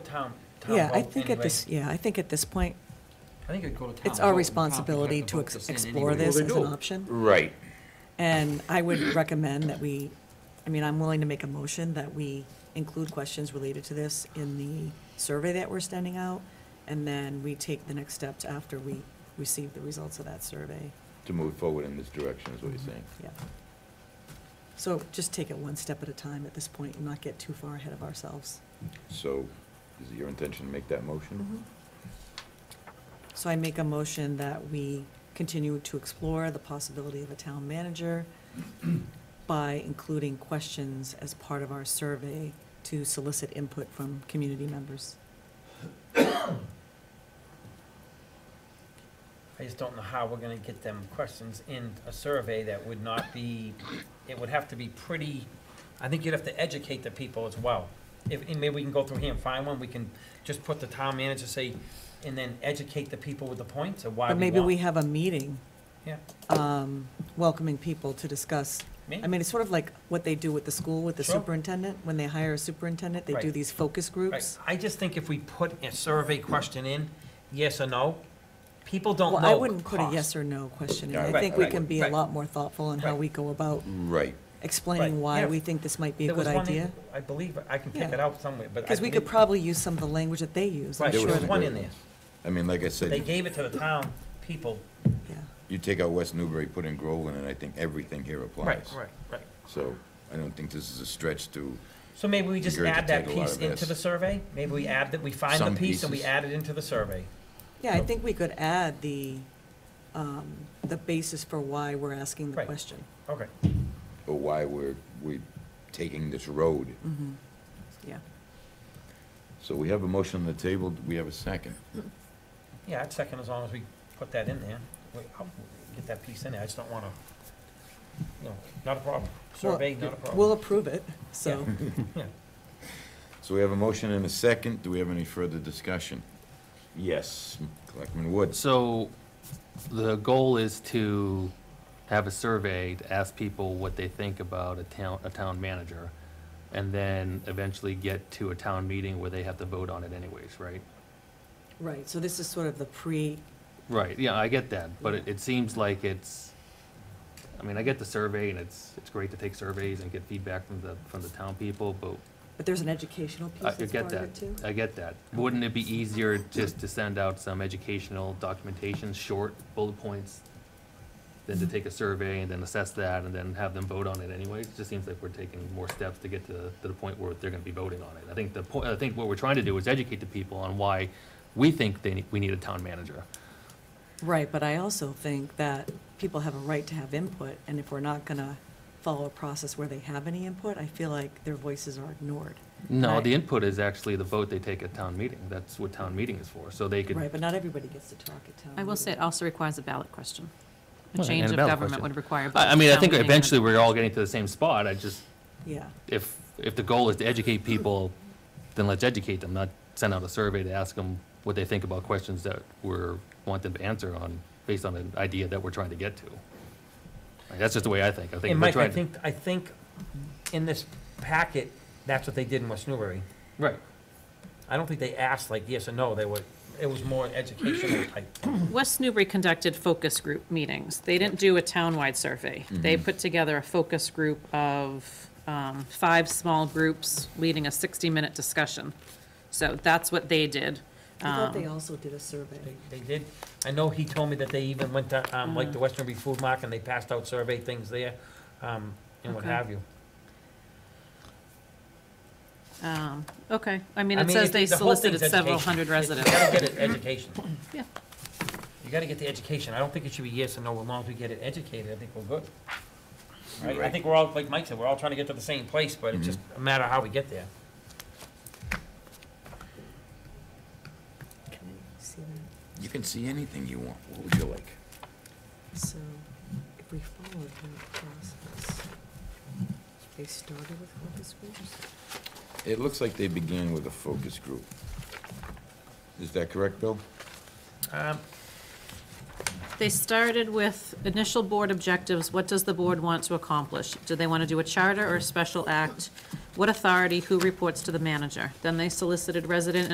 town, town Yeah, I vote think at anyway. this, yeah, I think at this point, I think it'd go to town. it's our vote. responsibility Town to people have ex- vote this in explore anyway. this Well, as they an do. option. Right. And I would recommend that we, I mean, I'm willing to make a motion that we include questions related to this in the survey that we're sending out, and then we take the next steps after we receive the results of that survey. To move forward in this direction is what you're saying. Yeah. So just take it one step at a time at this point and not get too far ahead of ourselves. So is it your intention to make that motion? Mm-hmm. So I make a motion that we continue to explore the possibility of a town manager by including questions as part of our survey to solicit input from community members. I just don't know how we're gonna get them questions in a survey that would not be, it would have to be pretty, I think you'd have to educate the people as well. If, and maybe we can go through here and find one, we can just put the town manager, say, and then educate the people with the points of why we want. But maybe we have a meeting Yeah, um, welcoming people to discuss. I maybe, mean, it's sort of like what they do with the school with the Sure. superintendent. When they hire a superintendent, they do Right. these focus right. groups. I just think if we put a survey question in, yes or no, people don't know. Well, I wouldn't put a cost. yes or no question in. Yeah, I right, think we right, can be a right. lot more thoughtful in how Right. we go about Right. explaining Right, why yeah. we think this might be a There was good one in- idea. I believe, I can pick Yeah. it out somewhere, but I Because we could believe- probably use some of the language that they use. I'm Right, There sure was there's that- one in there. I mean, like I They said, gave it to the town people. yeah. you take out West Newbury, put in Groveland, and I think everything here applies. right. So I don't think this is a stretch to, So maybe we just add that Regurgitate a lot piece of into this. the survey? Maybe we add that, we find the Some piece and we pieces. add it into the survey? Yeah, I think we could add the, um, the basis for why we're asking the Right. question. Okay. or why we're, we're taking this road. Mm-hmm. Yeah. So we have a motion on the table, Do we have a second. Yeah, I'd second as long as we put that in there. We- I'll Get that piece in there, I just don't want to, you know, not a problem. Survey, Well, not a problem. We'll approve it, so, Mm-hmm. Yeah. So we have a motion and a second, do we have any further discussion? Yes, Selectman Woods. So the goal is to have a survey to ask people what they think about a town, a town manager, and then eventually get to a town meeting where they have to vote on it anyways, right? right, so this is sort of the pre, Right, yeah, I get that, but it, it seems like it's, I mean, I get the survey, and it's, it's great to take surveys and get feedback from the, from the town people, but but there's an educational piece I I that's get part of that, it too. I get that. Wouldn't it be easier just to send out some educational documentation, short bullet points, than to take a survey and then assess that and then have them vote on it anyway? It just seems like we're taking more steps to get to, to the point where they're gonna be voting on it. I think the point, I think what we're trying to do is educate the people on why we think they, need- we need a town manager. Right, but I also think that people have a right to have input, and if we're not gonna follow a process where they have any input, I feel like their voices are ignored. No, Right. the input is actually the vote they take at town meeting. That's what town meeting is for, so they could. Right, but not everybody gets to talk at town I will say uh, it meeting. also requires a ballot question. A Well, change and a of ballot government question. would require. both I, I mean, I town think meeting and- eventually we're all getting to the same spot. I just, Yeah. if, if the goal is to educate people, then let's educate them, not send out a survey to ask them what they think about questions that we're, want them to answer on, based on an idea that we're trying to get to. Like, That's just the way I think. I think And we're Mike, I trying. to- think, I think in this packet, that's what they did in West Newbury. Right. I don't think they asked like yes or no, they were, it was more educational type. West Newbury conducted focus group meetings. They didn't do a townwide survey. They Mm-hmm. put together a focus group of um, five small groups leading a 60-minute discussion. So that's what they did. I thought they Um, also did a survey. They- They did, I know he told me that they even went to, um, like the Western Reef Food Market, and they passed out survey things there, um, and what Okay. have you. um, Okay, I mean, it I says it- they the whole solicited thing's several education. hundred You- residents. You gotta get it education. Yeah. You gotta get the education. I don't think it should be yes or no, as long as we get it educated, I think we're good. Right? I Right. think we're all, like Mike said, we're all trying to get to the same place, but it's just a matter of how we get there. Can I see that? You can see anything you want, what would you like? So if we follow that process, they started with focus groups? It looks like they began with a focus group. Is that correct, Bill? Um, They started with initial board objectives, what does the board want to accomplish? Do they want to do a charter or a special act? What authority, who reports to the manager? Then they solicited resident